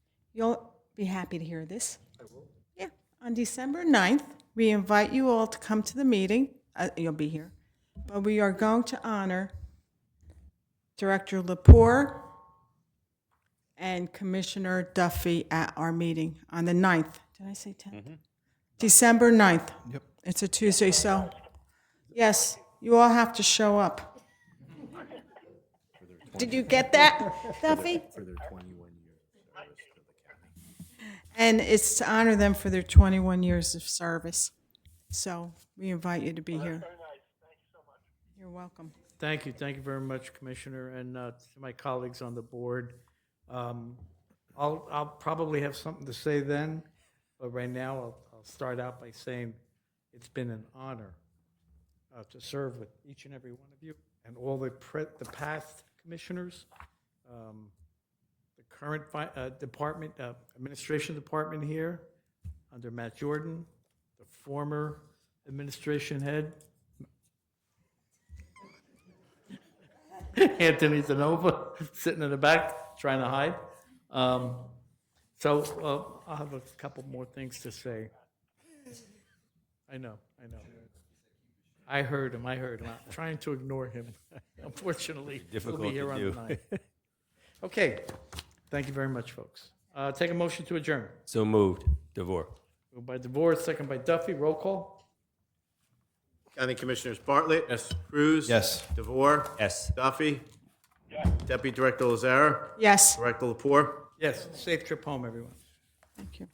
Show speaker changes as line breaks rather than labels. You'll be happy to hear this. I will. Yeah. On December 9th, we invite you all to come to the meeting. Uh, You'll be here. But we are going to honor Director Lepore and Commissioner Duffy at our meeting on the 9th. Did I say 10th? December 9th. Mm-hmm. Yep. It's a Tuesday, so, yes, you all have to show up. Did you get that, Duffy? And it's to honor them for their 21 years of service. So we invite you to be here. You're welcome.
Thank you, thank you very much, Commissioner, and uh, to my colleagues on the board. Um, I'll, I'll probably have something to say then, but right now, I'll, I'll start out by saying it's been an honor uh, to serve with each and every one of you and all the, pre- the past commissioners, um, the current fi- uh, department, uh, administration department here, under Matt Jordan, the former administration head, Anthony Zanova sitting in the back trying to hide. Um, so uh, I'll have a couple more things to say. I know, I know. I heard him. I heard him. I'm trying to ignore him. Unfortunately,
Difficult
he'll
to
be here on
do.
the night. Okay, thank you very much, folks. Uh, take a motion to adjourn.
So moved. DeVore.
Moved by DeVore, second by Duffy. Roll call.
County Commissioners Bartlett.
Yes.
Cruz.
Yes.
DeVore.
Yes.
Duffy. Deputy Director Lazara.
Yes,
Director Lapore.
Yes. Safe trip home, everyone.
thank you.